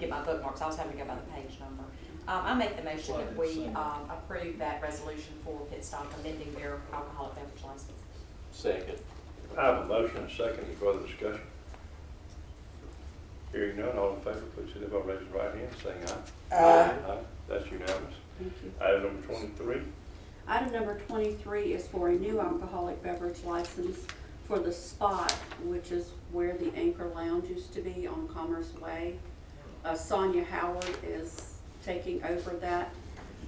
get my bookmarks, I was having to go by the page number. Um, I make the motion that we, um, approve that resolution for Pit Stop amending their alcoholic beverage license. Second. I have a motion, and a second, any further discussion? Hearing none, all in favor, please signify by raising your right hand, saying aye. Aye. Aye, that's unanimous. Thank you. Item number twenty-three, Item number twenty-three is for a new alcoholic beverage license for the Spot, which is where the Anchor Lounge used to be on Commerce Way. Uh, Sonia Howard is taking over that,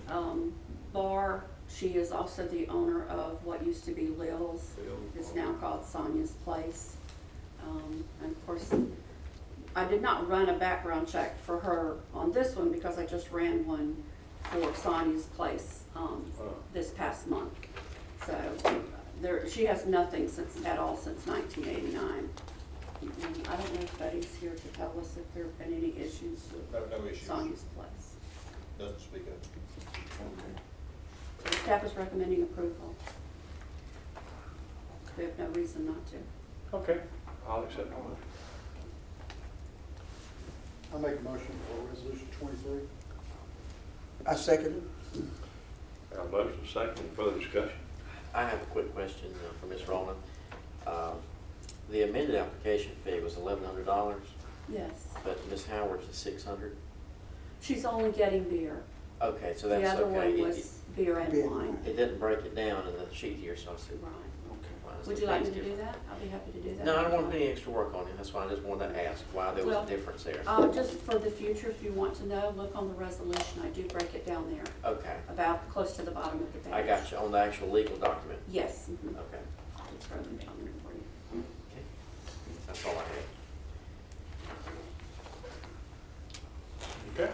um, bar. She is also the owner of what used to be Lil's. It's now called Sonia's Place. Um, and of course, I did not run a background check for her on this one because I just ran one for Sonia's Place, um, Oh. this past month. So uh, there, she has nothing since, at all since nineteen eighty-nine. I don't know if Buddy's here to tell us if there have been any issues No, with no issues. Sonia's Place. Doesn't speak up. So Staff is recommending approval. We have no reason not to. okay, I'll accept the motion. I make a motion for resolution twenty-three. I second it. I have a motion, and a second, any further discussion? I have a quick question uh, for Ms. Rowland. Um, The amended application fee was eleven hundred dollars, Yes. but Ms. Howard's is six hundred? She's only getting beer. Okay, so The that's other okay. one It- was beer and Beer. wine. It didn't break it down in the sheet here, so I said. Right. why is Would the you like fees me to do different? that? I'll be happy to do that. No, I don't want to put any extra work on it, that's why I just wanted to ask why there was Well, a difference there. Uh, just for the future, if you want to know, look on the resolution. I do break it down there, Okay, about close to the bottom of the page. I got you, on the actual legal document. Yes. mhm. Okay, It's broken down there for you. that's all I had. Okay.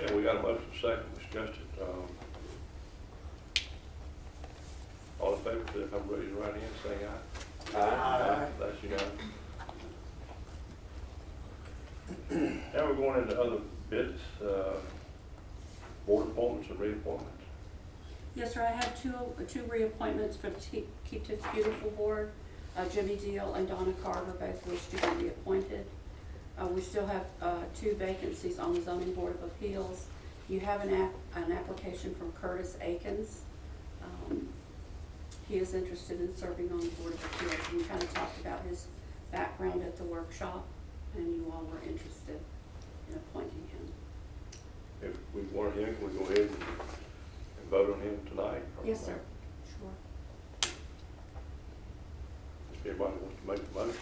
Yeah, we got a motion, and a second, Ms. Justin, um, all in favor, please, I'm raising your right hand, saying aye. Aye. That's unanimous. Now we're going into other bids, uh, board appointments and reappointments. Yes, sir, I have two, two reappointments for the Te- Keep Tiff Beautiful Board. Uh, Jimmy Deal and Donna Carter both wish to be reappointed. Uh, we still have, uh, two vacancies on the zoning board of appeals. You have an app, an application from Curtis Akins. Um, He is interested in serving on the board of appeals. We kind of talked about his background at the workshop, and you all were interested in appointing him. If we want him, can we go ahead and and vote on him tonight? Yes, sir. Sure. If anybody wants to make the motion.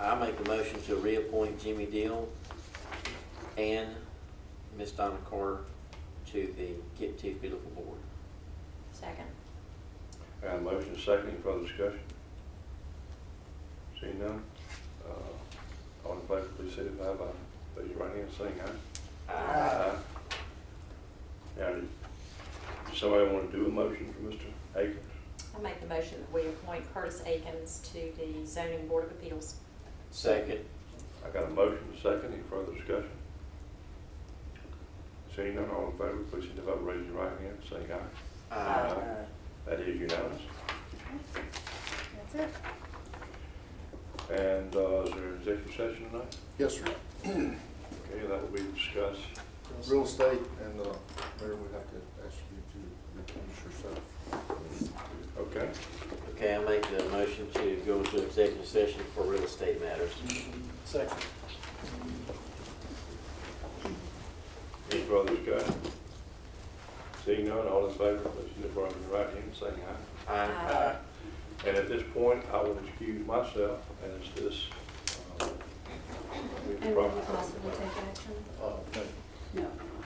I make the motion to reappoint Jimmy Deal and Miss Donna Carter to the Get Teeth Beautiful Board. Second. Got a motion, second, any further discussion? Seeing none, uh, all in favor, please signify by raising your right hand, saying aye. Aye. Now, did does somebody want to do a motion for Mr. Akins? I make the motion that we appoint Curtis Akins to the zoning board of appeals. Second. I got a motion, second, any further discussion? Seeing none, all in favor, please signify by raising your right hand, saying aye. Aye. That is unanimous. That's it. And, uh, is there an executive session tonight? Yes, sir. Okay, that will be discussed. Real estate and, uh, mayor would have to ask you to recuse yourself. Okay, Okay, I make the motion to go into executive session for real estate matters. Second. any further discussion? Seeing none, all in favor, please signify by your right hand, saying aye. Aye. Aye. And at this point, I will excuse myself as this. uh, we And will we probably- possibly take action? Uh, no. No.